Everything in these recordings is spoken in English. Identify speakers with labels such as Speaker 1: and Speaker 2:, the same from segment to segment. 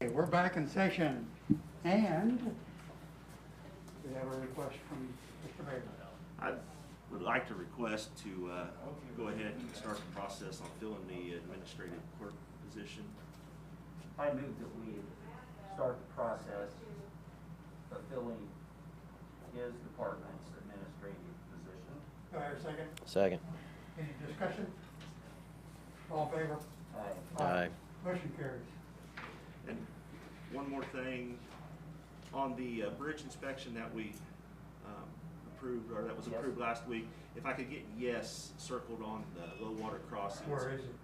Speaker 1: Okay, we're back in session, and we have a request from Mr. Bailey.
Speaker 2: I would like to request to uh, go ahead and start the process on filling the administrative clerk position.
Speaker 3: I move that we start the process of filling his department's administrative position.
Speaker 1: Do I hear a second?
Speaker 4: Second.
Speaker 1: Any discussion? All in favor?
Speaker 3: Aye.
Speaker 4: Aye.
Speaker 1: Motion carries.
Speaker 2: And one more thing, on the uh, bridge inspection that we um, approved, or that was
Speaker 3: Yes.
Speaker 2: approved last week, if I could get yes circled on the low water crossings.
Speaker 1: Where is it?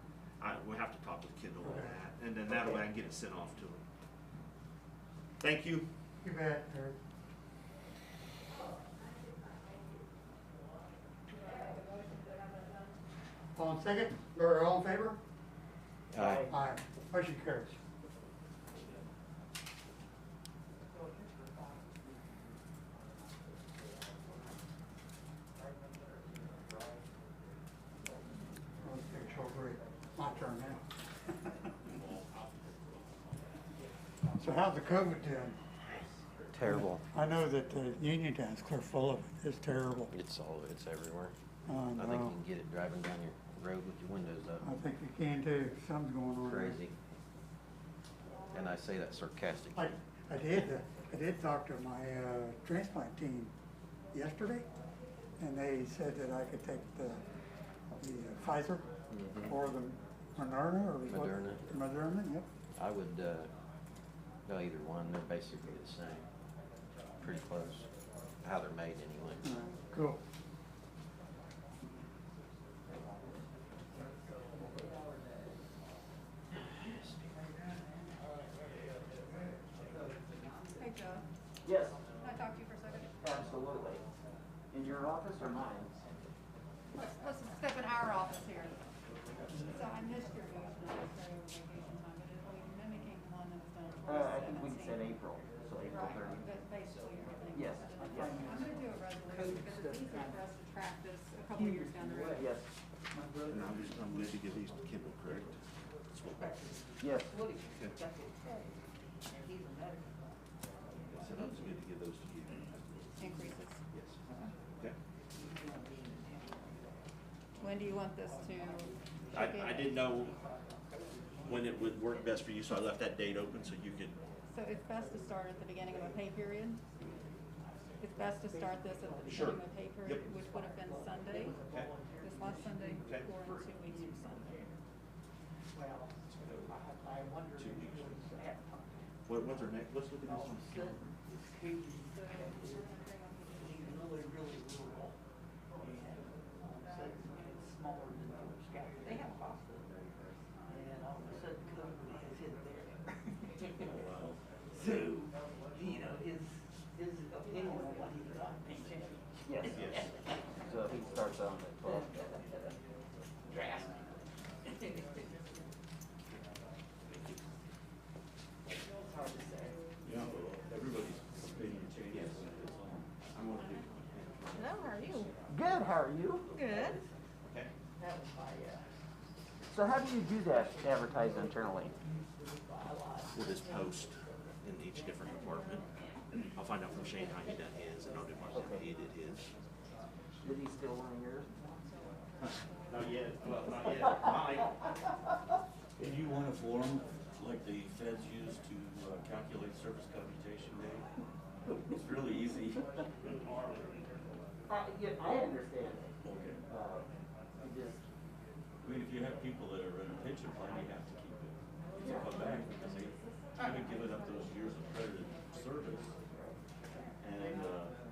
Speaker 2: I, we'll have to talk with Kendall on
Speaker 1: Okay.
Speaker 2: that, and then that way I can get it sent off to him. Thank you.
Speaker 1: You bet, Terry. All in second, or all in favor?
Speaker 4: Aye.
Speaker 1: Aye. Motion carries. Let's take a short break. My turn now. So how's the COVID doing?
Speaker 4: Terrible.
Speaker 1: I know that the union towns, Clear full of it. It's terrible.
Speaker 4: It's all, it's everywhere.
Speaker 1: I
Speaker 4: I think you
Speaker 1: know.
Speaker 4: can get it driving down your road with your windows
Speaker 1: I
Speaker 4: up.
Speaker 1: think you can too. Something's going on. there.
Speaker 4: Crazy. And I say that sarcastically.
Speaker 1: I, I did, uh, I did talk to my uh, transplant team yesterday, and they said that I could take the the uh, Pfizer
Speaker 4: Mhm.
Speaker 1: or the Moderna or what?
Speaker 4: Moderna.
Speaker 1: Moderna, yep.
Speaker 4: I would, uh, go either one. They're basically the same. Pretty close. How they're made
Speaker 1: All
Speaker 4: anyway.
Speaker 1: right, Cool.
Speaker 5: Hey, Joe,
Speaker 3: Yes,
Speaker 5: can I talk to you for a second?
Speaker 3: absolutely. In your office or mine?
Speaker 5: Let's, let's step in our office here. So I missed your vote tonight, so vacation time, but it'll be mimicking one that was done in
Speaker 3: Uh, I think we
Speaker 5: 2017.
Speaker 3: said April, so April
Speaker 5: Right,
Speaker 3: thirty.
Speaker 5: but basically everything.
Speaker 3: Yes,
Speaker 5: was
Speaker 3: I
Speaker 5: done.
Speaker 3: think-
Speaker 5: I'm gonna do a resolution because it's easier for us to track this a couple years down the road.
Speaker 3: Yes,
Speaker 2: And I'm just, I'm going to give these to Kendall, correct?
Speaker 3: yes.
Speaker 2: So I'm just going to give those to you.
Speaker 5: Increases.
Speaker 2: Yes. Okay.
Speaker 5: When do you want this to?
Speaker 2: I, I didn't know when it would work best for you, so I left that date open so you could,
Speaker 5: So it's best to start at the beginning of a pay period? It's best to start this at the
Speaker 2: Sure.
Speaker 5: beginning of a pay period,
Speaker 2: Yep.
Speaker 5: which would have been Sunday,
Speaker 2: Okay.
Speaker 5: this last Sunday,
Speaker 2: Okay.
Speaker 5: or in two weeks from Sunday.
Speaker 2: what, what's our next, let's look at this one.
Speaker 6: They have a hospital there first, and all of a sudden COVID has hit there. So, you know, his, his opinion on what he thought may change.
Speaker 3: Yes.
Speaker 2: Yes.
Speaker 3: So he starts on the twelfth.
Speaker 6: Drastically. It's hard to say.
Speaker 2: Yeah, everybody's opinion changes. I'm gonna do.
Speaker 5: Hello, how are you?
Speaker 3: Good, how are you?
Speaker 5: Good.
Speaker 2: Okay.
Speaker 6: That was my, uh,
Speaker 3: So how do you do that, advertise internally?
Speaker 2: We'll just post in each different department. I'll find out from Shane how he done his, and I'll do mine how he did his.
Speaker 3: Did he still want yours?
Speaker 2: Not yet, well, not yet, mine.
Speaker 7: Do you want a form like the feds use to uh, calculate service computation rate? It's really easy.
Speaker 3: I, yeah, I understand. Uh, I just,
Speaker 7: I mean, if you have people that are in a pension plan, you have to keep it. It's come back because they haven't given up those years of credited service. And, uh,